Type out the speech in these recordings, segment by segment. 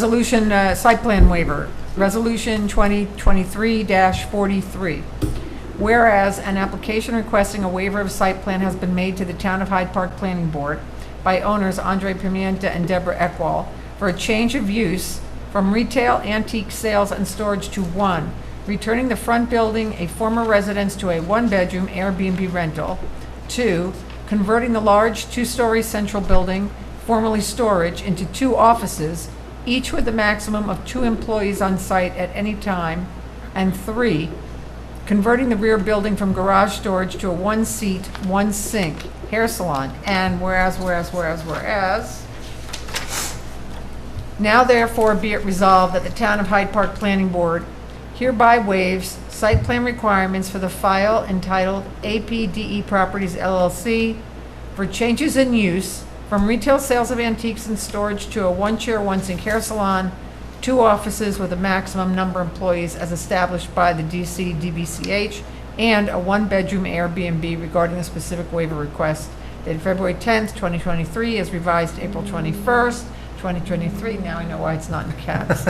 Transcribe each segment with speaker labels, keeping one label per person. Speaker 1: Resolution, uh, site plan waiver, Resolution 2023-43. Whereas an application requesting a waiver of site plan has been made to the Town of Hyde Park Planning Board by owners Andre Pimienta and Deborah Ekwall for a change of use from retail antique sales and storage to one, returning the front building, a former residence, to a one-bedroom Airbnb rental. Two, converting the large two-story central building, formerly storage, into two offices, each with a maximum of two employees on site at any time. And three, converting the rear building from garage storage to a one-seat, one-sink hair salon. And whereas, whereas, whereas, whereas, now therefore be it resolved that the Town of Hyde Park Planning Board hereby waives site plan requirements for the file entitled APDE E Properties LLC for changes in use from retail sales of antiques and storage to a one-chair, one-sink hair salon, two offices with a maximum number of employees as established by the DC DBCH, and a one-bedroom Airbnb regarding the specific waiver request dated February 10th, 2023, as revised April 21st, 2023, now I know why it's not in caps,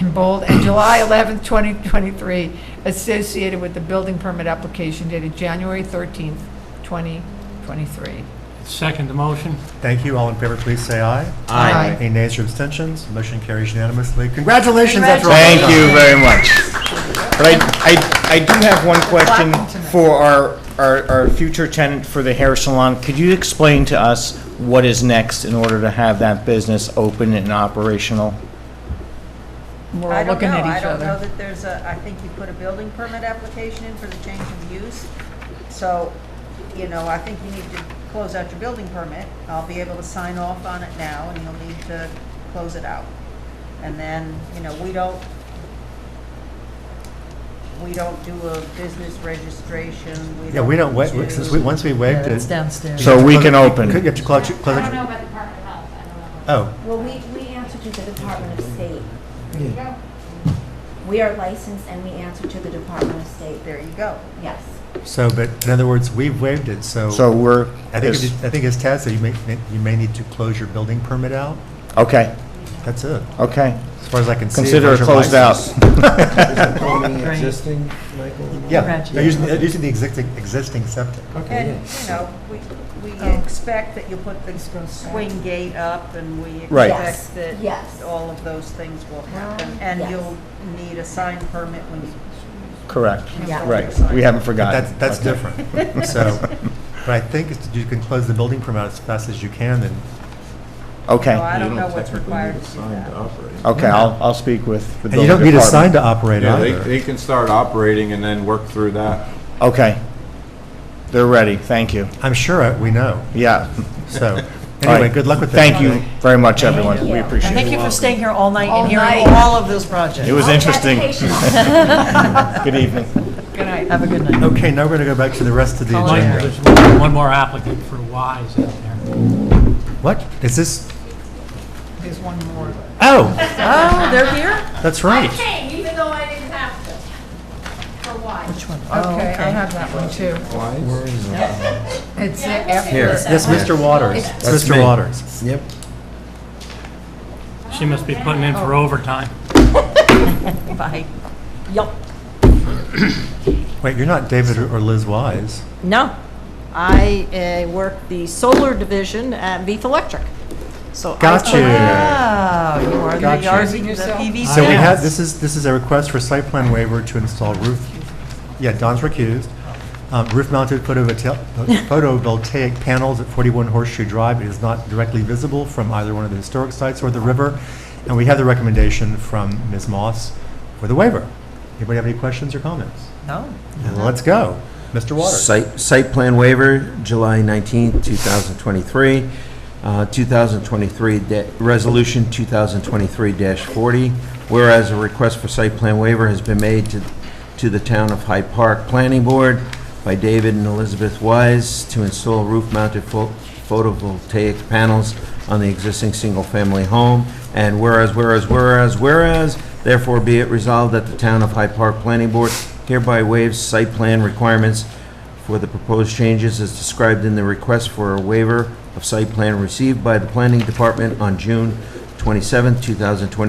Speaker 1: in bold, and July 11th, 2023, associated with the building permit application dated January 13th, 2023.
Speaker 2: Second the motion.
Speaker 3: Thank you. All in favor, please say aye.
Speaker 1: Aye.
Speaker 3: Any nays or abstentions? Motion carries unanimously. Congratulations, after all.
Speaker 4: Thank you very much. But I, I, I do have one question for our, our, our future tenant for the hair salon. Could you explain to us what is next in order to have that business open and operational?
Speaker 1: We're
Speaker 5: I
Speaker 1: all
Speaker 5: don't
Speaker 1: looking
Speaker 5: know.
Speaker 1: at
Speaker 5: I
Speaker 1: each
Speaker 5: don't know
Speaker 1: other.
Speaker 5: that there's a, I think you put a building permit application in for the change of use. So, you know, I think you need to close out your building permit. I'll be able to sign off on it now, and you'll need to close it out. And then, you know, we don't, we don't do a business registration, we
Speaker 3: Yeah, we don't, wa- since we, once we waived
Speaker 6: It's
Speaker 3: it. you
Speaker 6: downstairs.
Speaker 3: have
Speaker 4: So
Speaker 3: to
Speaker 4: we
Speaker 3: close-
Speaker 4: can open.
Speaker 3: You have to close, it- close
Speaker 7: I don't know
Speaker 3: it.
Speaker 7: about Department of Health, I don't know.
Speaker 3: Oh,
Speaker 7: Well, we, we answer to the Department of State. We are licensed and we answer to the Department of State,
Speaker 5: There you go.
Speaker 7: yes.
Speaker 3: so, but in other words, we've waived it, so.
Speaker 4: So we're,
Speaker 3: I think, it- I think as Tad said, you may, you may need to close your building permit out.
Speaker 4: okay,
Speaker 3: That's it,
Speaker 4: okay.
Speaker 3: as far as I can see.
Speaker 4: Consider it
Speaker 3: where's your
Speaker 4: closed out.
Speaker 3: license?
Speaker 8: Only
Speaker 6: Right.
Speaker 8: existing, Michael?
Speaker 3: Yeah,
Speaker 6: Correct.
Speaker 3: they're using, they're using the existing, existing septic.
Speaker 8: Okay,
Speaker 5: And, you know, we, we
Speaker 6: Oh.
Speaker 5: expect that you'll put the swing gate up, and we
Speaker 4: Right.
Speaker 5: expect
Speaker 7: Yes,
Speaker 5: that
Speaker 7: yes.
Speaker 5: all of those things will happen.
Speaker 7: Um,
Speaker 5: And
Speaker 7: yes.
Speaker 5: you'll need a sign permit when you
Speaker 4: Correct,
Speaker 7: Yeah.
Speaker 4: right. We haven't
Speaker 3: But
Speaker 4: forgotten.
Speaker 3: that's, that's
Speaker 4: Okay.
Speaker 3: different. So, but I think it's- you can close the building permit out as fast as you can, and
Speaker 5: No,
Speaker 4: Okay,
Speaker 5: I don't
Speaker 8: You
Speaker 5: know what's
Speaker 8: technically
Speaker 5: required
Speaker 8: need a
Speaker 5: to do
Speaker 8: sign
Speaker 5: that.
Speaker 8: to operate.
Speaker 4: okay, I'll, I'll speak with the
Speaker 3: And you
Speaker 4: building
Speaker 3: don't need a sign
Speaker 4: department.
Speaker 3: to operate
Speaker 8: Yeah, they,
Speaker 3: either.
Speaker 8: they can start operating and then work through that.
Speaker 4: Okay. They're ready, thank you.
Speaker 3: I'm sure I- we know.
Speaker 4: Yeah.
Speaker 3: So,
Speaker 4: All right.
Speaker 3: anyway, good luck with that.
Speaker 4: Thank you very much, everyone.
Speaker 7: Thank
Speaker 4: We
Speaker 7: you.
Speaker 4: appreciate it.
Speaker 6: Thank you for staying here all night
Speaker 1: All
Speaker 6: and hearing
Speaker 1: night.
Speaker 6: all of those projects.
Speaker 4: It was interesting. Good evening.
Speaker 1: Good night.
Speaker 6: Have a good night.
Speaker 3: Okay, now we're going to go back to the rest of the
Speaker 6: Colin.
Speaker 2: Mike,
Speaker 3: agenda.
Speaker 2: there's one one more applicant for Wise out there.
Speaker 3: What? Is this,
Speaker 1: There's one more.
Speaker 3: oh,
Speaker 6: Oh, they're here?
Speaker 3: that's right.
Speaker 7: came, even though I didn't have to. For why?
Speaker 6: Which one? Oh,
Speaker 1: Okay, I have that one too. It's
Speaker 8: Here.
Speaker 1: after.
Speaker 3: That's Mr. Waters.
Speaker 8: That's
Speaker 3: Mr.
Speaker 8: me.
Speaker 3: Waters.
Speaker 8: Yep.
Speaker 2: She must be putting in for overtime.
Speaker 5: Bye.
Speaker 6: Yup.
Speaker 3: Wait, you're not David or Liz Wise.
Speaker 6: No, I uh, work the solar division at Beef Electric. So I-
Speaker 3: Got you.
Speaker 6: Wow, you are the
Speaker 3: Got you.
Speaker 6: yard- the
Speaker 1: Using yourself.
Speaker 6: PV
Speaker 3: So we have,
Speaker 6: sales.
Speaker 3: this is, this is a request for site plan waiver to install roof, yeah, Don's recused. Um, Roof-mounted photovata- photovoltaic panels at 41 Horseshoe Drive. It is not directly visible from either one of the historic sites or the river. And we have the recommendation from Ms. Moss for the waiver. Anybody have any questions or comments?
Speaker 6: No.
Speaker 3: Let's go. Mr. Waters.
Speaker 8: Site, site plan waiver, July 19th, 2023. Uh, 2023, da- Resolution 2023-40, whereas a request for site plan waiver has been made to, to the Town of Hyde Park Planning Board by David and Elizabeth Wise to install roof-mounted pho- photovoltaic panels on the existing single-family home, and whereas, whereas, whereas, whereas, therefore be it resolved that the Town of Hyde Park Planning Board hereby waives site plan requirements for the proposed changes as described in the request for a waiver of site plan received by the Planning Department on June 20 27, 2023